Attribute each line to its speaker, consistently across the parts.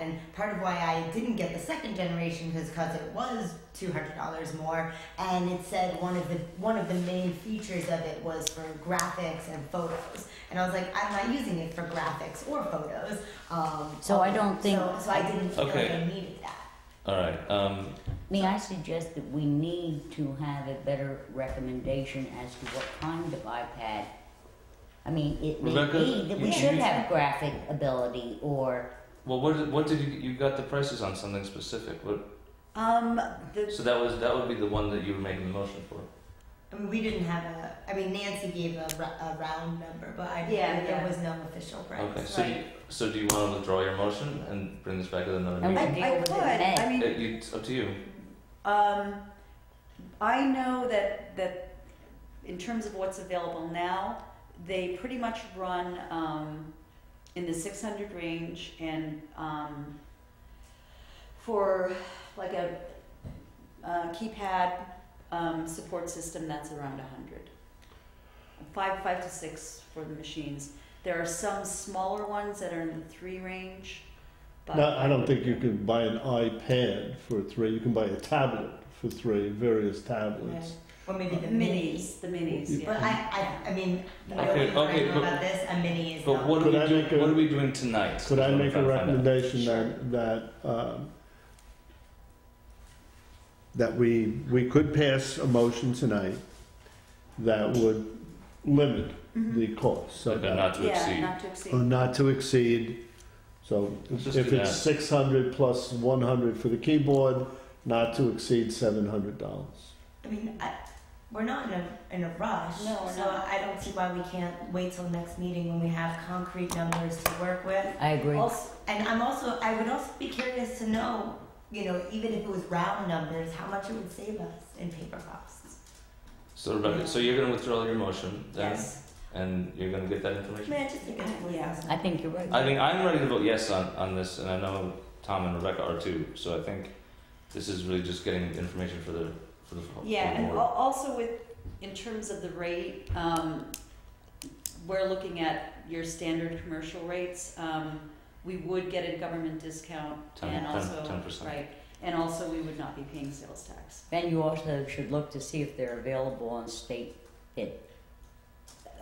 Speaker 1: And part of why I didn't get the second generation was because it was two hundred dollars more, and it said one of the one of the main features of it was for graphics and photos. And I was like, I'm not using it for graphics or photos. Um,
Speaker 2: So I don't think-
Speaker 1: so. So I didn't feel like
Speaker 3: Okay.
Speaker 1: I needed that.
Speaker 3: All right. Um,
Speaker 2: May I suggest that we need to have a better recommendation as to what kind of iPad? I mean, it may
Speaker 3: Rebecca,
Speaker 2: be that we
Speaker 3: you-
Speaker 2: should
Speaker 3: you-
Speaker 2: have graphic ability or,
Speaker 3: well, what did, what did you you got the prices on something specific? What,
Speaker 1: Um, the,
Speaker 3: so that was that would be the one that you were making the motion for.
Speaker 1: I mean, we didn't have a. I mean, Nancy gave a, ru- a round number, but I
Speaker 4: Yeah,
Speaker 1: there
Speaker 4: yeah.
Speaker 1: was no official price.
Speaker 3: Okay. So do you, so do you want to withdraw your motion and bring this back at another
Speaker 2: And we
Speaker 3: meeting?
Speaker 4: I,
Speaker 2: can deal with it
Speaker 4: I could.
Speaker 2: in May.
Speaker 4: I mean,
Speaker 3: It, you, it's up to you.
Speaker 4: Um, I know that, that in terms of what's available now, they pretty much run, um, in the six hundred range and, um, for like a, uh, keypad, um, support system, that's around a hundred. Five, five to six for the machines. There are some smaller ones that are in the three range, but.
Speaker 5: No, I don't think you can buy an iPad for three. You can buy a tablet for three, various tablets.
Speaker 1: Or maybe the minis.
Speaker 4: Minis, the minis, yeah.
Speaker 1: But I, I, I mean,
Speaker 3: Okay,
Speaker 1: nobody
Speaker 3: okay,
Speaker 1: know
Speaker 3: but-
Speaker 1: about this. A mini is
Speaker 3: But
Speaker 1: not-
Speaker 3: what are
Speaker 5: Could
Speaker 3: we
Speaker 5: I
Speaker 3: doing?
Speaker 5: make a-
Speaker 3: what are we doing tonight?
Speaker 5: Could
Speaker 3: Is what
Speaker 5: I
Speaker 3: I'm
Speaker 5: make a
Speaker 3: trying to find out.
Speaker 5: recommendation that that um, that we we could pass a motion tonight that would limit
Speaker 4: Mhm.
Speaker 1: Mm-hmm.
Speaker 5: the cost so
Speaker 3: Okay,
Speaker 5: that
Speaker 3: not to
Speaker 4: Yeah,
Speaker 3: exceed.
Speaker 4: not to exceed.
Speaker 5: or not to exceed. So
Speaker 3: Let's just
Speaker 5: if
Speaker 3: do
Speaker 5: it's
Speaker 3: that.
Speaker 5: six hundred plus one hundred for the keyboard, not to exceed seven hundred dollars.
Speaker 1: I mean, I, we're not in a in a rush.
Speaker 4: No, we're
Speaker 1: so
Speaker 4: not.
Speaker 1: I don't see why we can't wait till next meeting when we have concrete numbers to work with.
Speaker 2: I agree.
Speaker 1: Also, and I'm also I would also be curious to know, you know, even if it was round numbers, how much it would save us in paper costs.
Speaker 3: So Rebecca, so you're going to withdraw your motion then,
Speaker 1: Yes.
Speaker 3: and you're going to get that information.
Speaker 1: Man, just think of
Speaker 4: Yeah.
Speaker 2: I think you're right.
Speaker 3: I mean, I'm ready to vote yes on, on this, and I know Tom and Rebecca are too. So I think this is really just getting information for the for the for the
Speaker 4: Yeah, and
Speaker 3: board.
Speaker 4: al- also with, in terms of the rate, um, we're looking at your standard commercial rates. Um, we would get a government discount
Speaker 3: Ten-
Speaker 4: and
Speaker 3: ten-
Speaker 4: also,
Speaker 3: 10%.
Speaker 4: right, and also we would not be paying sales tax.
Speaker 2: Then you also should look to see if they're available on state bid.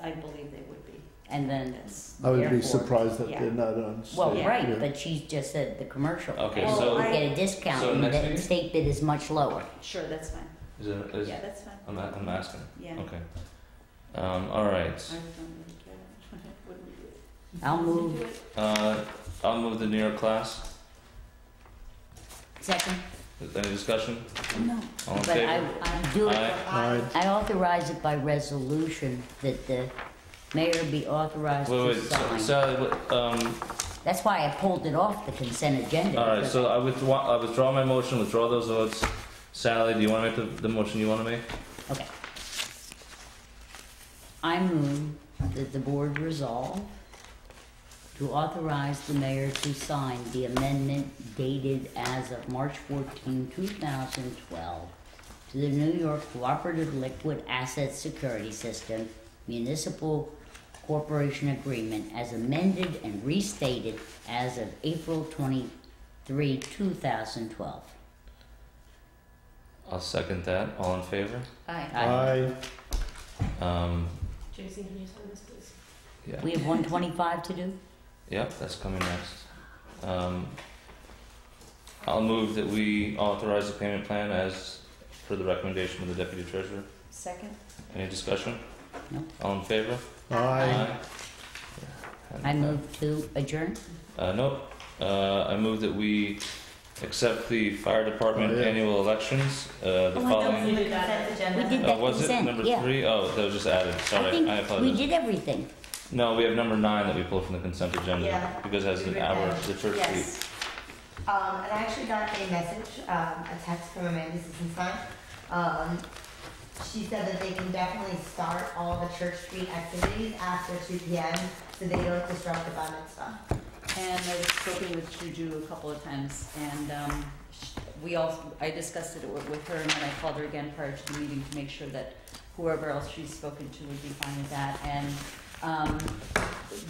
Speaker 4: I believe they would be.
Speaker 2: And then
Speaker 4: Yes.
Speaker 5: I would be
Speaker 2: Therefore,
Speaker 5: surprised that
Speaker 4: yeah.
Speaker 5: they're not on.
Speaker 2: Well,
Speaker 5: stage,
Speaker 2: right,
Speaker 5: yeah.
Speaker 2: but she's just said the commercial.
Speaker 3: Okay,
Speaker 2: And
Speaker 4: so-
Speaker 2: you get a discount,
Speaker 3: so
Speaker 2: and
Speaker 3: next
Speaker 2: the
Speaker 3: meeting?
Speaker 2: state bid is much lower.
Speaker 4: Sure, that's fine.
Speaker 3: Is it, is, um,
Speaker 4: Yeah, that's fine.
Speaker 3: I'm, a- I'm asking.
Speaker 4: Yeah.
Speaker 3: Okay. Um, all right.
Speaker 4: I don't really care. Wouldn't we do it?
Speaker 2: I'll
Speaker 4: Wouldn't we
Speaker 2: move.
Speaker 4: do it?
Speaker 3: Uh, I'll move the Nero class.
Speaker 2: Second,
Speaker 3: Any discussion?
Speaker 2: no,
Speaker 3: All in
Speaker 2: but
Speaker 3: favor?
Speaker 2: I do it.
Speaker 3: Aye.
Speaker 5: Aye.
Speaker 2: I authorize it by resolution that the mayor be authorized
Speaker 3: Wait,
Speaker 2: to
Speaker 3: wait. So,
Speaker 2: sign.
Speaker 3: Sally, what- um,
Speaker 2: That's why I pulled it off the consent agenda.
Speaker 3: All right,
Speaker 2: because
Speaker 3: so I withdraw, I withdraw my motion, withdraw those votes. Sally, do you wanna make the, the motion you wanna make?
Speaker 2: Okay. I move that the board resolve to authorize the mayor to sign the amendment dated as of March 14, 2012 to the New York Cooperative Liquid Asset Security System Municipal Corporation Agreement as amended and restated as of April 23, 2012.
Speaker 3: I'll second that, all in favor?
Speaker 5: Aye.
Speaker 3: Um,
Speaker 6: Jason, can you sign this, please?
Speaker 3: yeah,
Speaker 2: We have 125 to do?
Speaker 3: yep, that's coming next. Um, I'll move that we authorize the payment plan as per the recommendation of the deputy treasurer.
Speaker 4: Second?
Speaker 3: Any discussion?
Speaker 2: No.
Speaker 3: All in favor?
Speaker 5: Aye.
Speaker 2: I move to adjourn.
Speaker 3: Uh, nope, uh, I move that we accept the fire department
Speaker 5: Oh, yeah.
Speaker 3: annual elections, uh, the
Speaker 2: Oh, I thought
Speaker 3: following.
Speaker 1: We did that agenda.
Speaker 2: We did
Speaker 3: Uh,
Speaker 2: that
Speaker 3: was it
Speaker 2: consent,
Speaker 3: number
Speaker 2: yeah.
Speaker 3: three? Oh, that was just added.
Speaker 2: I
Speaker 3: Sorry, I
Speaker 2: think we
Speaker 3: apologize.
Speaker 2: did everything.
Speaker 3: No, we have number nine that we pulled from the consent agenda
Speaker 1: Yeah.
Speaker 3: because it has
Speaker 1: We
Speaker 3: an
Speaker 1: read
Speaker 3: hour,
Speaker 1: that.
Speaker 3: the church week.
Speaker 4: Yes.
Speaker 1: Um, and I actually got a message, um, a text from Amanda Sissenstein. Um, she said that they can definitely start all the Church Street activities after 2 p.m. so they don't disrupt the bar mitzvah.
Speaker 4: And I've spoken with Juju a couple of times, and um, sh- we all, I discussed it wi- with her, and then I called her again prior to the meeting to make sure that whoever else she's spoken to would be fine with that. And um,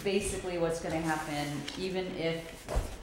Speaker 4: basically, what's going to happen, even if